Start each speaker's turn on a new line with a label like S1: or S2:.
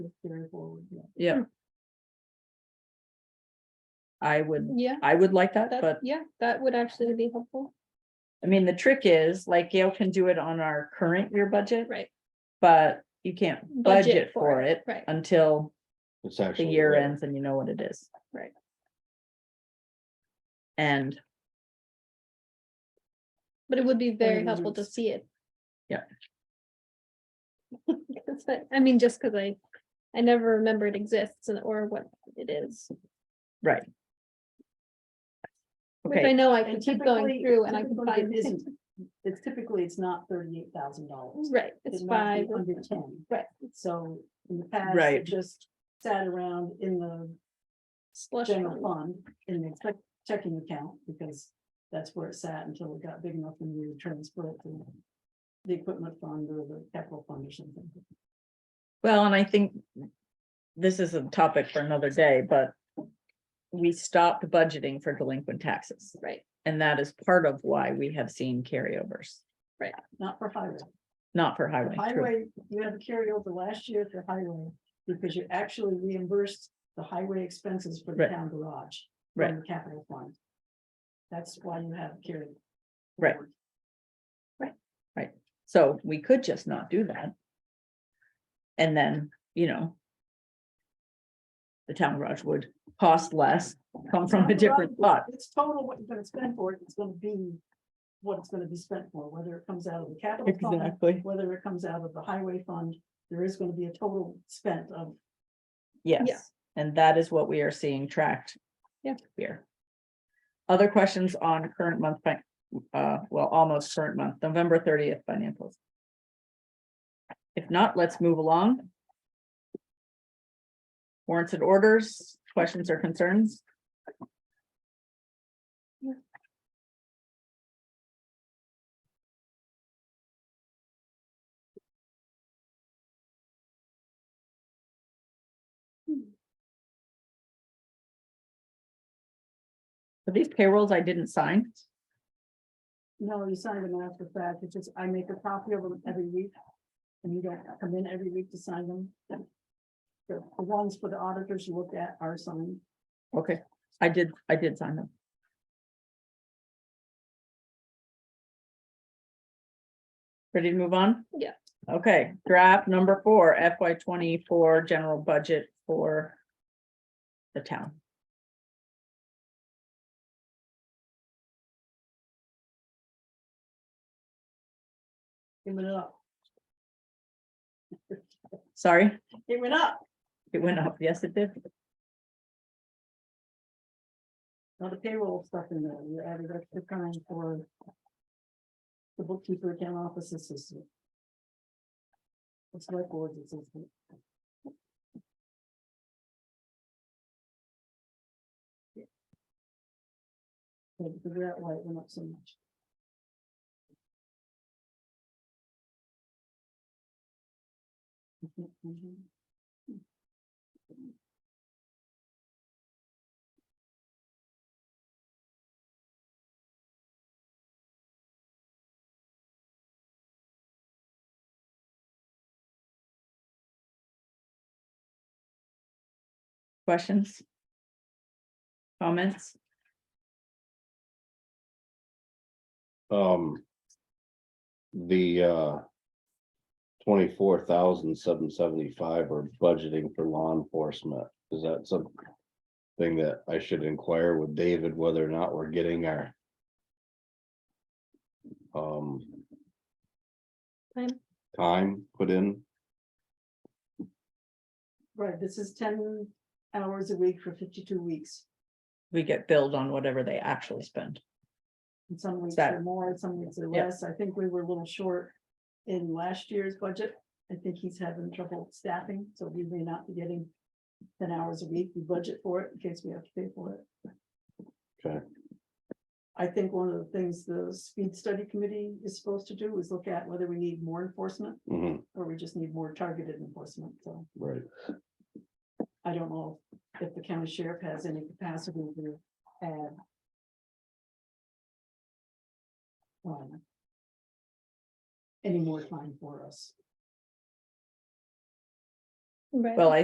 S1: carry forward, yeah. Hmm.
S2: yeah. I would,
S3: Yeah,
S2: I would like that,
S3: that,
S2: but
S3: yeah, that would actually be helpful.
S2: I mean, the trick is like Gail can do it on our current year budget,
S3: Right.
S2: but you can't budget for it
S3: Right.
S2: until
S4: It's
S2: the
S4: actually.
S2: year
S4: there.
S2: ends and you know what it is.
S3: Right.
S2: And
S3: But it would be very
S2: you
S3: helpful to
S2: lose?
S3: see it.
S2: Yeah.
S3: 'Cause I- I mean, just because I, I never remember it exists and or what it is, which I
S2: okay,
S3: know I
S1: And
S3: can keep going
S1: typically-
S3: through and I can
S1: typically
S3: find
S1: it
S3: it.
S1: isn't- It's typically, it's not thirty-eight thousand dollars.
S3: Right, it's five. or-
S1: Under ten.
S3: Right.
S1: So in the past,
S2: Right.
S1: it just sat around in the
S3: Slush
S1: general
S3: fund.
S1: fund, in the check- checking account, because that's where it sat until it got big enough and we transferred it to the equipment fund or the capital fund or something.
S2: well, and I think this is a topic for another day, but we stopped budgeting for delinquent taxes.
S3: Right,
S2: And that is part of why we have seen carryovers,
S1: Not for highway.
S2: not for highway. true.
S1: Highway, you had to carry over last year for highway, because you actually reimbursed the highway expenses for the
S2: Right.
S1: town garage.
S2: Right.
S1: From the capital fund. That's why you have carried.
S2: Right.
S1: forward.
S2: So we could just not do that. And then, you know. The town garage would cost less, come from a different lot,
S1: It's total what you're gonna spend for it, it's gonna be what it's gonna be spent for, whether it comes out of the capital fund,
S2: exactly,
S1: whether it comes out of the highway fund, there is gonna be a total spent of,
S2: yes, and that is what we are seeing tracked.
S3: Yeah.
S2: Here. Other questions on current month, fin- uh, well, almost current month, November thirtieth financials. If not, let's move along. Warrants and orders, questions or concerns? So These payrolls I didn't sign.
S1: no, you sign them after the fact, it's just, I make a copy of them every week. And you don't come in every week to sign them. The the ones for the auditors you look at are signed.
S2: Okay, I did, I did sign them. Ready to move on?
S3: Yeah.
S2: Okay, draft number four FY twenty-four general budget for the town.
S1: It went up,
S2: Sorry,
S1: it went up.
S2: it went up. Yes, it did.
S1: Now the payroll stuff in there, you added extra time for. The bookkeeper account office assistant. It's like board assistant. Had to figure out why it went up so much. I can't find it.
S2: Questions? Comments?
S4: Um. The, uh. Twenty-four thousand seven seventy-five are budgeting for law enforcement. Is that some? Thing that I should inquire with David whether or not we're getting our. Um.
S3: Time.
S4: Time put in,
S1: Right, this is ten hours a week for fifty-two weeks.
S2: We get billed on whatever they actually spend.
S1: And some weeks
S2: that-
S1: are more, some weeks are
S2: Yeah.
S1: less. I think we were a little short in last year's budget. I think he's having trouble staffing, so we may not be getting ten hours a week. We budget for it in case we have to pay for it.
S4: Okay.
S1: I think one of the things the speed study committee is supposed to do is look at whether we need more enforcement
S4: Mhm,
S1: or we just need more targeted enforcement. So
S4: right,
S1: I don't know if the county sheriff has any capacity to add. um, Any more time for us.
S5: Right.
S3: Well, I